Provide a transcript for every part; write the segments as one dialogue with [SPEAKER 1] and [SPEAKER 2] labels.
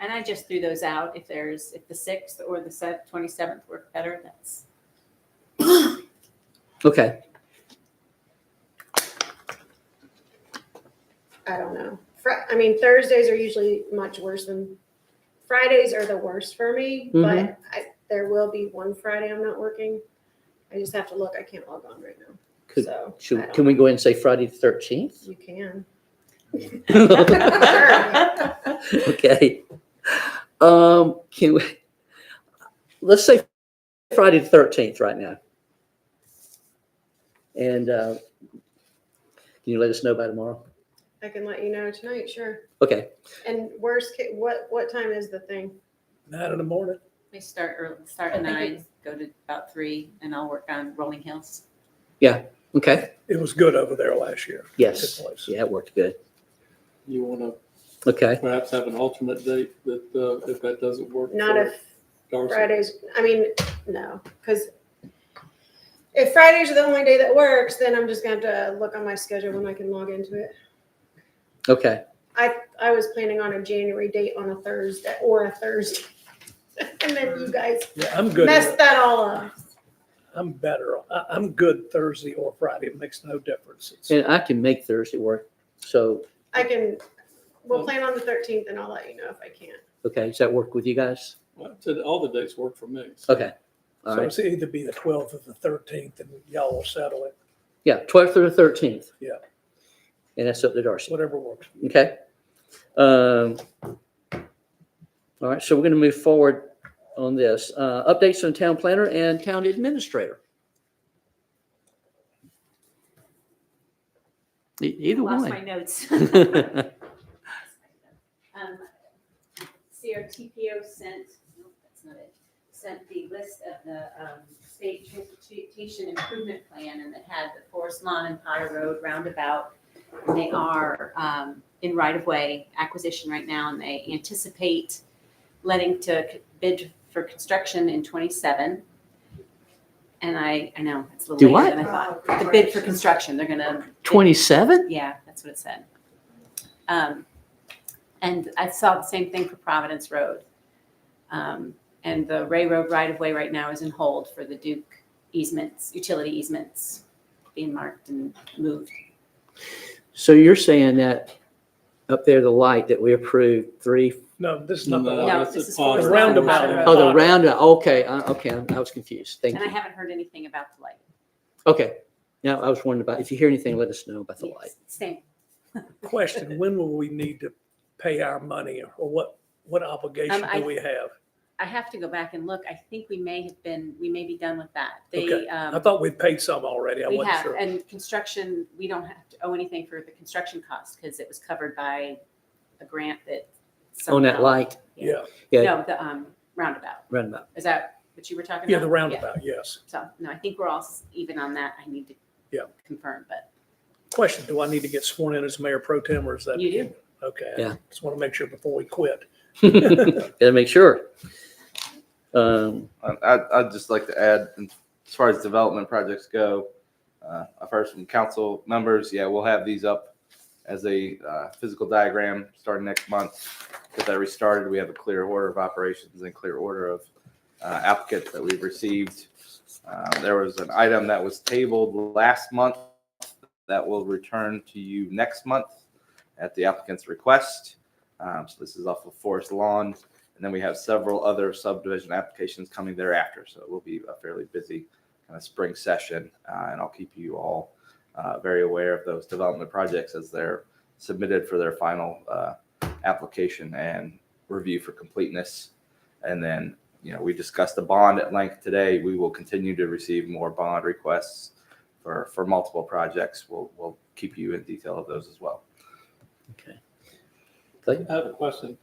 [SPEAKER 1] And I just threw those out. If there's, if the sixth or the sev- 27th work better, that's,
[SPEAKER 2] Okay.
[SPEAKER 3] I don't know. Fri- I mean, Thursdays are usually much worse than Fridays are the worst for me,
[SPEAKER 2] Mm-hmm.
[SPEAKER 3] but I, there will be one Friday I'm not working. I just have to look. I can't log on right now.
[SPEAKER 2] Could-
[SPEAKER 3] so I
[SPEAKER 2] Should,
[SPEAKER 3] don't-
[SPEAKER 2] can we go ahead and say Friday the thirteenth?
[SPEAKER 3] you can.
[SPEAKER 2] Okay. Um, can we, let's say Friday the thirteenth right now. And, uh, can you let us know by tomorrow?
[SPEAKER 3] I can let you know tonight, sure.
[SPEAKER 2] Okay,
[SPEAKER 3] And worst case, what what time is the thing?
[SPEAKER 4] Nine in the morning.
[SPEAKER 1] we start early, start at
[SPEAKER 3] I think
[SPEAKER 1] nine, go to about three, and I'll work on Rolling Hills.
[SPEAKER 2] okay,
[SPEAKER 4] It was good over there last year.
[SPEAKER 2] yes.
[SPEAKER 4] Good place.
[SPEAKER 2] Yeah, it worked good.
[SPEAKER 5] You want to
[SPEAKER 2] Okay,
[SPEAKER 5] perhaps have an alternate date that, uh, if that doesn't work.
[SPEAKER 3] Not
[SPEAKER 5] for
[SPEAKER 3] if
[SPEAKER 5] Darcy?
[SPEAKER 3] Fridays. I mean, no, because if Fridays are the only day that works, then I'm just going to have to look on my schedule when I can log into it.
[SPEAKER 2] okay,
[SPEAKER 3] I I was planning on a January date on a Thursday or a Thursday, and then you guys
[SPEAKER 4] Yeah, I'm good.
[SPEAKER 3] messed that all up.
[SPEAKER 4] I'm better. I, I'm good Thursday or Friday. It makes no difference. It's-
[SPEAKER 2] and I can make Thursday work, so,
[SPEAKER 3] I can. We'll plan on the 13th, and I'll let you know if I can't.
[SPEAKER 2] okay, does that work with you guys?
[SPEAKER 5] Well, I said All the dates work for me. so-
[SPEAKER 2] Okay, all
[SPEAKER 4] So
[SPEAKER 2] right,
[SPEAKER 4] it's either be the twelfth or the thirteenth and y'all will settle it,
[SPEAKER 2] yeah, twelfth or the thirteenth.
[SPEAKER 4] Yeah.
[SPEAKER 2] And that's up to Darcy.
[SPEAKER 4] whatever works.
[SPEAKER 2] Okay. Um, All right, so we're going to move forward on this. Uh, Updates on town planner and town administrator. E- Either
[SPEAKER 1] Lost my
[SPEAKER 2] one.
[SPEAKER 1] notes. Um, CRTPO sent, no, that's not it, sent the list of the, um, state transportation improvement plan and it had the Forest Lawn and Potter Road roundabout. And they are, um, in right-of-way acquisition right now and they anticipate letting to c- bid for construction in twenty-seven. And I, I know, it's a
[SPEAKER 2] Do
[SPEAKER 1] little later
[SPEAKER 2] what?
[SPEAKER 1] than I thought.
[SPEAKER 3] Uh,
[SPEAKER 1] The bid for construction, they're gonna. bid-
[SPEAKER 2] 27?
[SPEAKER 1] yeah, that's what it said. Um, and I saw the same thing for Providence Road. Um, and the Ray Road right of way right now is in hold for the Duke easements, utility easements being marked and moved.
[SPEAKER 2] So you're saying that up there, the light that we approved, three,
[SPEAKER 4] No, this is not the
[SPEAKER 5] No,
[SPEAKER 4] one.
[SPEAKER 1] No,
[SPEAKER 5] that's
[SPEAKER 1] this
[SPEAKER 5] a
[SPEAKER 1] is for
[SPEAKER 5] pond.
[SPEAKER 1] the
[SPEAKER 4] roundabout.
[SPEAKER 1] Road.
[SPEAKER 2] oh, the round, okay, I- okay, I was confused. Thank
[SPEAKER 1] And I
[SPEAKER 2] you.
[SPEAKER 1] haven't heard anything about the light.
[SPEAKER 2] Okay. Now, I was wondering about, if you hear anything, let us know about the light.
[SPEAKER 1] Same.
[SPEAKER 4] Question, when will we need to pay our money or what, what obligation
[SPEAKER 1] Um, I-
[SPEAKER 4] do we have?
[SPEAKER 1] I have to go back and look. I think we may have been, we may be done with that.
[SPEAKER 4] Okay.
[SPEAKER 1] They,
[SPEAKER 4] I
[SPEAKER 1] um,
[SPEAKER 4] thought we'd paid some already. I
[SPEAKER 1] we
[SPEAKER 4] wasn't
[SPEAKER 1] have,
[SPEAKER 4] sure.
[SPEAKER 1] and construction, we don't have to owe anything for the construction costs because it was covered by a grant that.
[SPEAKER 2] On that
[SPEAKER 1] somehow-
[SPEAKER 2] light,
[SPEAKER 4] Yeah,
[SPEAKER 2] Yeah.
[SPEAKER 1] No, the um, roundabout.
[SPEAKER 2] roundabout.
[SPEAKER 1] Is that what you were talking about?
[SPEAKER 4] yeah, the roundabout, yes.
[SPEAKER 1] So, no, I think we're all s- even on that. I need to
[SPEAKER 4] Yeah.
[SPEAKER 1] confirm, but
[SPEAKER 4] Question, do I need to get sworn in as mayor pro tem or is that?
[SPEAKER 1] you do.
[SPEAKER 4] Okay. I
[SPEAKER 2] Yeah.
[SPEAKER 4] Just want to make sure before we quit.
[SPEAKER 2] Gotta make sure. Um,
[SPEAKER 6] I, I- I'd just like to add, as far as development projects go, uh, I've heard from council members, yeah, we'll have these up as a uh, physical diagram starting next month. Get that restarted. We have a clear order of operations and clear order of uh, applicants that we've received. Uh, There was an item that was tabled last month that will return to you next month at the applicant's request. Um, So this is off of Forest Lawn. And then we have several other subdivision applications coming thereafter. So it will be a fairly busy kind of spring session. uh, and I'll keep you all uh, very aware of those development projects as they're submitted for their final uh, application and review for completeness. And then, you know, we discussed the bond at length today. We will continue to receive more bond requests for, for multiple projects. We'll, we'll keep you in detail of those as well.
[SPEAKER 5] I have a question.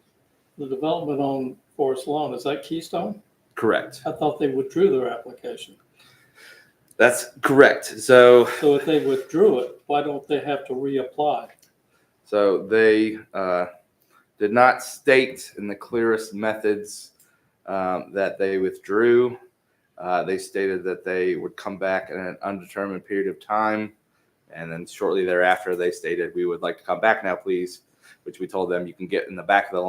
[SPEAKER 5] The development on Forest Lawn, is that Keystone?
[SPEAKER 6] Correct.
[SPEAKER 5] I thought they withdrew their application.
[SPEAKER 6] That's correct. So
[SPEAKER 5] So if they withdrew it, why don't they have to reapply?
[SPEAKER 6] So they uh, did not state in the clearest methods um, that they withdrew. Uh, they stated that they would come back in an undetermined period of time. And then shortly thereafter, they stated, We would like to come back now, please, which we told them you can get in the back of the line.